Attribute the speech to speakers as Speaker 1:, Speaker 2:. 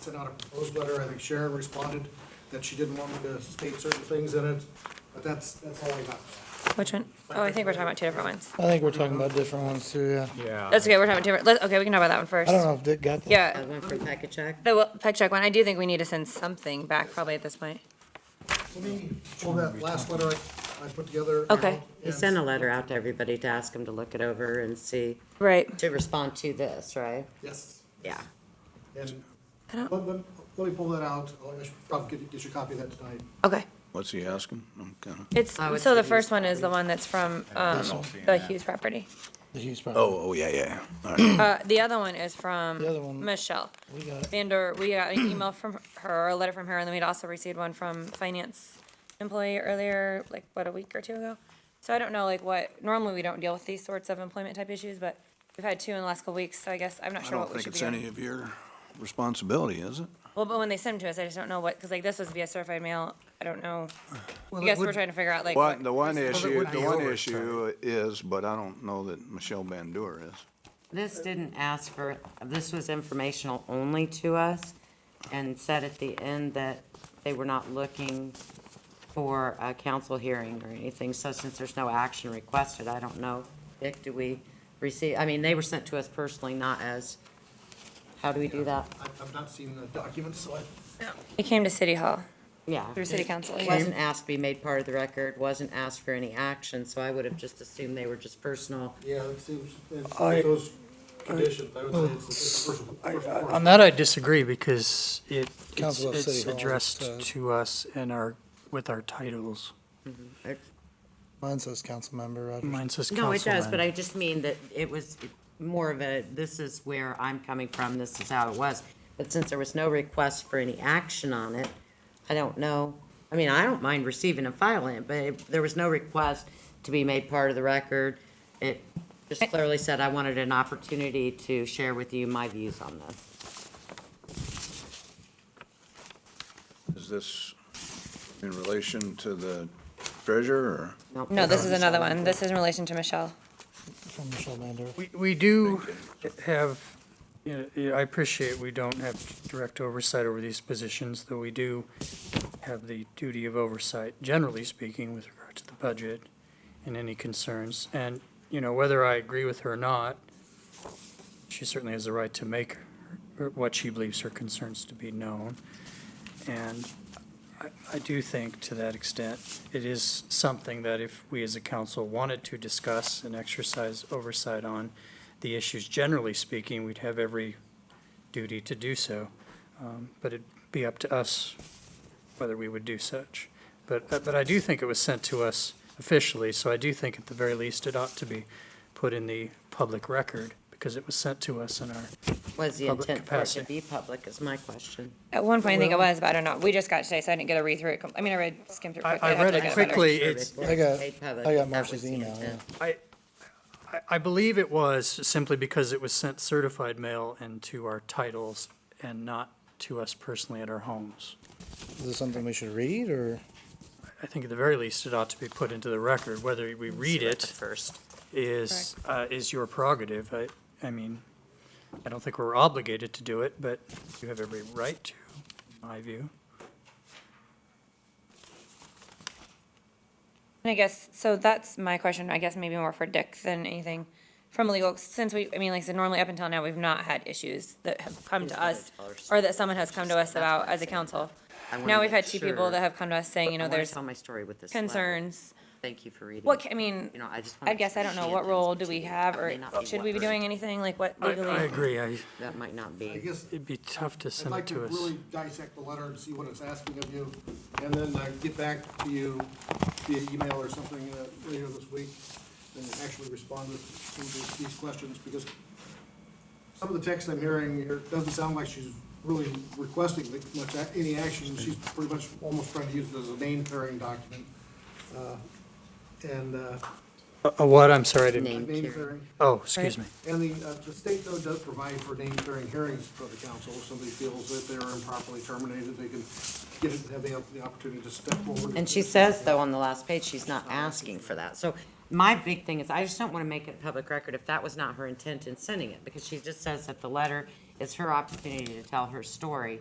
Speaker 1: sent out a proposed letter, I think Sharon responded that she didn't want me to state certain things in it, but that's, that's all I got.
Speaker 2: Which one? Oh, I think we're talking about two different ones.
Speaker 3: I think we're talking about different ones too, yeah.
Speaker 4: Yeah.
Speaker 2: That's okay, we're talking about different, let, okay, we can talk about that one first.
Speaker 3: I don't know if Dick got that.
Speaker 2: Yeah,
Speaker 5: I went for pack a check.
Speaker 2: the well, peg check one, I do think we need to send something back probably at this point.
Speaker 1: Let me pull that last letter I, I put together.
Speaker 2: Okay.
Speaker 5: You sent a letter out to everybody to ask them to look it over and see,
Speaker 2: Right.
Speaker 5: to respond to this, right?
Speaker 1: Yes.
Speaker 5: Yeah.
Speaker 1: And
Speaker 2: I don't-
Speaker 1: let, let, let me pull that out. Oh, I should probably get, get your copy of that tonight.
Speaker 2: Okay.
Speaker 6: What's he asking? I'm kind of.
Speaker 2: It's,
Speaker 5: I would
Speaker 2: so
Speaker 5: say
Speaker 2: the
Speaker 5: use
Speaker 2: first one is
Speaker 5: probably-
Speaker 2: the one that's from, um,
Speaker 6: don't see
Speaker 1: Oh,
Speaker 2: the
Speaker 6: that.
Speaker 2: Hughes property.
Speaker 3: The huge problem.
Speaker 6: Oh, oh, yeah, yeah. All right.
Speaker 2: Uh, the other one is from
Speaker 3: The other one-
Speaker 2: Michelle.
Speaker 3: We got it.
Speaker 2: Vander, we got an email from her, a letter from her, and then we'd also received one from finance employee earlier, like, what, a week or two ago? So I don't know, like, what, normally we don't deal with these sorts of employment type issues, but we've had two in the last couple weeks, so I guess, I'm not
Speaker 6: I
Speaker 2: sure what
Speaker 6: don't
Speaker 2: we
Speaker 6: think
Speaker 2: should be
Speaker 6: it's
Speaker 2: doing.
Speaker 6: any of your responsibility, is it?
Speaker 2: Well, but when they send them to us, I just don't know what, because like, this was via certified mail, I don't know. I
Speaker 1: it
Speaker 2: guess we're
Speaker 1: would-
Speaker 2: trying to figure out, like,
Speaker 6: Well, the
Speaker 2: what,
Speaker 6: one
Speaker 1: it
Speaker 6: issue,
Speaker 1: would
Speaker 6: the
Speaker 1: be
Speaker 6: one
Speaker 1: overtime.
Speaker 6: issue is, but I don't know that Michelle Bandura is.
Speaker 5: This didn't ask for, this was informational only to us and said at the end that they were not looking for a council hearing or anything. So since there's no action requested, I don't know, Dick, do we receive, I mean, they were sent to us personally, not as, how do we do that?
Speaker 1: I've, I've not seen the documents, so I,
Speaker 2: it came to City Hall
Speaker 5: Yeah.
Speaker 2: through City Council.
Speaker 5: It Wasn't asked to be made part of the record, wasn't asked for any action, so I would have just assumed they were just personal.
Speaker 1: yeah, it seems, it-
Speaker 3: I-
Speaker 1: with those conditions, I would say it's, it's personal. personal
Speaker 7: On that, I disagree because it, it's
Speaker 3: Council of City
Speaker 7: it's
Speaker 3: Hall,
Speaker 7: addressed
Speaker 3: uh,
Speaker 7: to us in our, with our titles.
Speaker 3: Mine says council member, Roger.
Speaker 7: Mine says
Speaker 5: No, it does,
Speaker 7: councilman.
Speaker 5: but I just mean that it was more of a, this is where I'm coming from, this is how it was. But since there was no request for any action on it, I don't know, I mean, I don't mind receiving and filing it, but it- there was no request to be made part of the record. It just clearly said I wanted an opportunity to share with you my views on this.
Speaker 6: Is this in relation to the treasurer
Speaker 5: Nope.
Speaker 2: No, this is another one. This is in relation to Michelle.
Speaker 3: From Michelle Mander.
Speaker 7: We, we do have, you know, yeah, I appreciate we don't have direct oversight over these positions, though we do have the duty of oversight, generally speaking, with regard to the budget and any concerns. And, you know, whether I agree with her or not, she certainly has the right to make her- what she believes her concerns to be known. And I, I do think to that extent, it is something that if we as a council wanted to discuss and exercise oversight on the issues, generally speaking, we'd have every duty to do so. Um, But it'd be up to us whether we would do such. But, uh, but I do think it was sent to us officially, so I do think at the very least it ought to be put in the public record because it was sent to us in our,
Speaker 5: Was the
Speaker 7: public
Speaker 5: intent for it to
Speaker 7: capacity.
Speaker 5: be public is my question.
Speaker 2: At one point, I think it was, but I don't know. We just got today, so I didn't get a read through it. com- I mean, I read, skimmed through.
Speaker 7: I-
Speaker 2: quickly.
Speaker 7: I
Speaker 2: I'd have
Speaker 7: read
Speaker 2: to
Speaker 7: it
Speaker 2: get better.
Speaker 7: quickly. it's-
Speaker 5: Sure,
Speaker 3: I got-
Speaker 5: it's made public,
Speaker 3: I got
Speaker 5: that
Speaker 3: Marcia's
Speaker 5: was the
Speaker 3: email,
Speaker 5: intent.
Speaker 7: I, I- I believe it was simply because it was sent certified mail and to our titles and not to us personally at our homes.
Speaker 3: Is this something we should read or?
Speaker 7: I think at the very least, it ought to be put into the record. Whether we read
Speaker 5: At
Speaker 7: it
Speaker 5: First.
Speaker 7: is, uh, is your prerogative. I, I mean, I don't think we're obligated to do it, but you have every right to, in my view.
Speaker 2: And I guess, so that's my question, I guess maybe more for Dick than anything from legal, since we, I mean, like I said, normally up until now, we've not had issues that have come to us or that someone has come to us about as a council. Now we've had two people that have come to us saying, you know, there's
Speaker 5: Tell my story with this. letter.
Speaker 2: concerns.
Speaker 5: Thank you for reading.
Speaker 2: What, ca- I mean,
Speaker 5: You know, I just wanna
Speaker 2: I guess I don't know,
Speaker 5: understand
Speaker 2: what
Speaker 5: things
Speaker 2: role
Speaker 5: that
Speaker 2: do we
Speaker 5: you-
Speaker 2: have
Speaker 5: that
Speaker 2: or
Speaker 5: may not be
Speaker 2: should we be
Speaker 5: what-
Speaker 2: doing anything? Like what
Speaker 7: I,
Speaker 2: legally?
Speaker 7: I agree. I,
Speaker 5: That might not
Speaker 1: I
Speaker 5: be.
Speaker 1: guess
Speaker 7: it'd be tough to
Speaker 1: I'd
Speaker 7: send
Speaker 1: like
Speaker 7: it
Speaker 1: to
Speaker 7: to us.
Speaker 1: really dissect the letter and see what it's asking of you, and then uh, get back to you via email or something uh, later this week, and actually respond to some of these- these questions, because some of the text I'm hearing, here doesn't sound like she's really requesting that much, a- any action, she's pretty much almost trying to use it as a name clearing document. Uh, And, uh,
Speaker 7: Uh, uh, what? I'm sorry, I didn't.
Speaker 5: Name
Speaker 1: name
Speaker 5: clearing.
Speaker 1: clearing.
Speaker 7: Oh, excuse me.
Speaker 1: And the, uh, the state though does provide for name clearing hearings for the council. If somebody feels that they're improperly terminated, they can get it, have the, the opportunity to step forward.
Speaker 5: And she says, though, on the last page, she's not asking for that. So my big thing is, I just don't want to make it public record if that was not her intent in sending it, because she just says that the letter is her opportunity to tell her story.